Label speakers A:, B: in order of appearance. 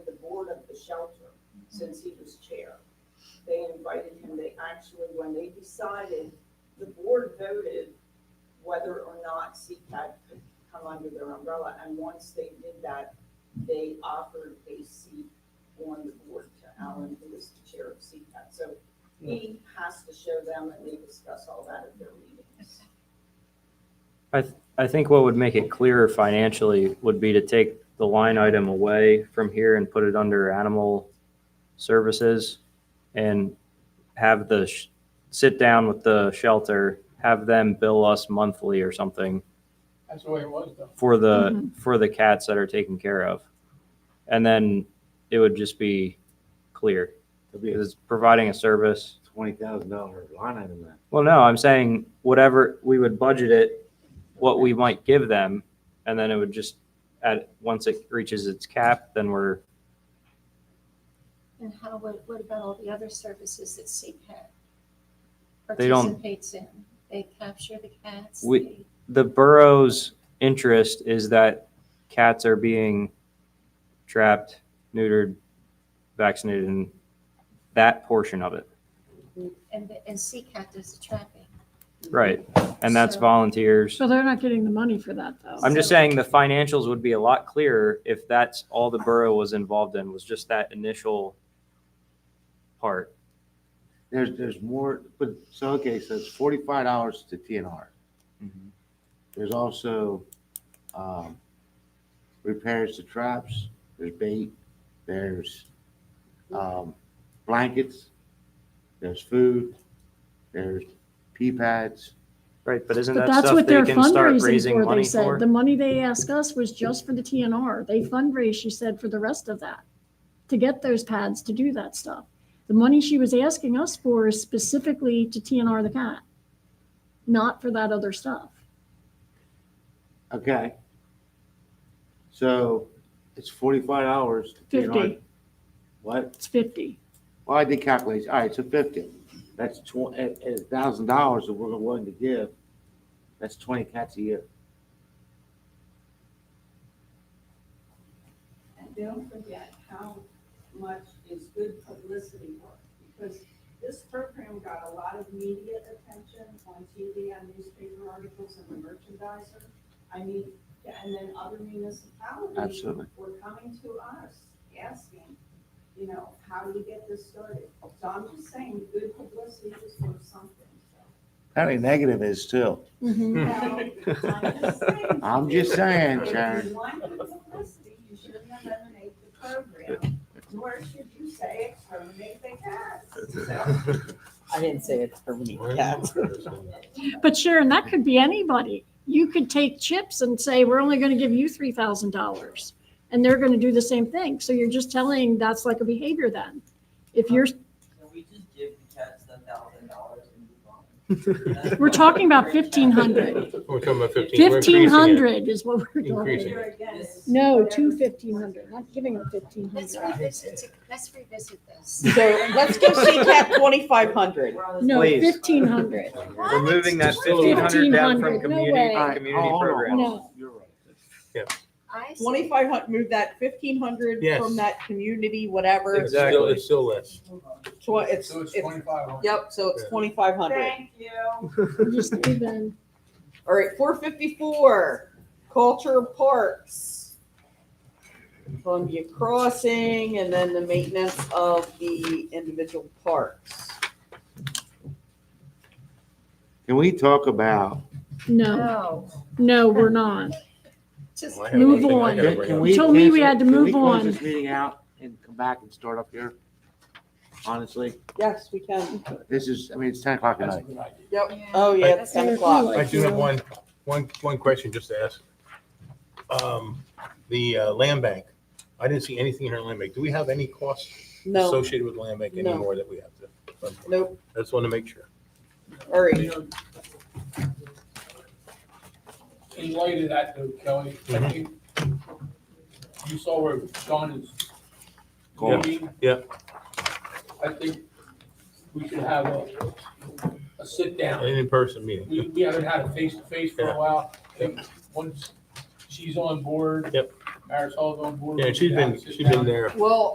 A: shelter since he was chair. They invited him, they actually, when they decided, the board voted whether or not CCAT could come under their umbrella, and once they did that, they offered a seat on the board to Alan, who is the chair of CCAT. So he has to show them, and they discuss all that at their meetings.
B: I think what would make it clearer financially would be to take the line item away from here and put it under animal services and have the, sh- sit down with the shelter, have them bill us monthly or something
C: That's the way it was though.
B: for the, for the cats that are taken care of. And then it would just be clear.
D: It'll be a
B: It's providing a service.
D: twenty thousand dollar line item then.
B: Well, no, I'm saying whatever, we would budget it, what we might give them, and then it would just, at, once it reaches its cap, then we're,
E: And how, what, what about all the other services that CPAC
B: They don't-
E: participates in? They capture the cats,
B: We-
E: they,
B: the borough's interest is that cats are being trapped, neutered, vaccinated, and that portion of it,
E: and, the- and CCAT does the trapping.
B: right? And that's
E: So-
B: volunteers.
F: So they're not getting the money for that, though.
B: I'm just saying the financials would be a lot clearer if that's all the borough was involved in, was just that initial part.
D: There's, there's more, but, so, okay, so it's forty-five dollars to TNR. There's also, um, repairs to traps, there's bait, there's, um, blankets, there's food, there's pee pads.
B: Right, but isn't
F: But
B: that
F: that's
B: stuff
F: what
B: they
F: they're
B: can start
F: fundraising
B: raising
F: for, they
B: money for?
F: said. The money they asked us was just for the TNR. They fundraise, she said, for the rest of that, to get those pads, to do that stuff. The money she was asking us for is specifically to TNR the cat, not for that other stuff.
D: Okay. So it's forty-five dollars to TNR.
F: Fifty,
D: What?
F: it's fifty.
D: Well, I did calculate, all right, so fifty, that's twenty, a thousand dollars that we're willing to give, that's twenty cats a year.
A: And don't forget how much is good publicity work, because this program got a lot of media attention on TV, on newspaper articles, and the merchandiser. I mean, and then other municipalities.
D: Absolutely.
A: Were coming to us, asking, you know, how do you get this started? So I'm just saying, good publicity is worth something, so.
D: Apparently negative is too.
F: Mhm.
A: Well, I'm just saying.
D: I'm just saying,
A: If
D: Sharon,
A: you wanted publicity, you shouldn't eliminate the program, nor should you say exterminate the cats.
G: I didn't say it's for me, cats.
F: But Sharon, that could be anybody. You could take chips and say, we're only going to give you three thousand dollars. And they're going to do the same thing. So you're just telling, that's like a behavior then. If you're,
H: Can we just give the cats the thousand dollars and move on?
F: we're talking about fifteen hundred.
C: We're talking about fifteen. We're increasing
F: Fifteen
C: it.
F: hundred is what we're
A: So,
F: doing.
C: Increasing.
A: here again is
F: No,
A: whatever-
F: two fifteen hundred, not giving them fifteen
E: Let's
F: hundred.
E: revisit, it- let's revisit this.
G: So let's give CCAP twenty-five hundred.
A: We're on the-
F: No,
B: Please.
F: fifteen hundred.
B: Removing that
C: Still a
B: fifteen hundred
C: little-
B: down from
F: 1,500, no
B: community,
F: way.
D: All right,
B: community
D: hold on, hold on.
B: programs.
F: No.
D: You're right.
E: I see.
G: Twenty-five hundred, move that fifteen hundred
C: Yes.
G: from that community, whatever.
C: It's still, it's still less.
A: Move on.
G: Tw- it's,
C: So it's
G: it's,
C: twenty-five hundred.
G: yep, so it's
C: Yeah.
G: twenty-five hundred.
A: Thank you.
F: Just even,
G: All right, four fifty-four, culture parks. Columbia Crossing and then the maintenance of the individual parks.
D: Can we talk about,
F: no,
E: No,
F: no, we're not.
E: just,
C: Well, I have
F: Move
C: one thing I gotta
F: on.
D: can
C: bring
D: can
C: up.
D: we?
F: told me we
D: cancel-
F: had to
D: can we
F: move
D: close
F: on.
D: This meeting out and come back and start up here? Honestly,
G: Yes, we can.
D: this is, I mean, it's ten o'clock at
C: That's a
D: night.
C: good idea.
G: Yep.
E: Yeah.
G: Oh, yeah, it's ten o'clock.
C: I do have one, one, one question just to ask. Um, the uh, land bank, I didn't see anything in our land bank. Do we have any costs
G: No,
C: associated with land bank
G: No.
C: anymore that we have to?
G: nope.
C: I just want to make sure.
G: All right.
I: in light of that though, Kelly,
C: Mm-hmm.
I: I think you saw where Sean is
D: Going.
I: going.
C: Yeah.
I: I think we should have a, a sit
C: An
I: down.
C: in-person meeting.
I: We, we haven't had a face to face for
C: Yeah.
I: a while. I think once she's on board.
C: Yep.
I: Marisol's on board.
C: Yeah,
I: we
C: she's
I: should have
C: been,
I: a sit
C: she's been
I: down.
C: there
G: Well,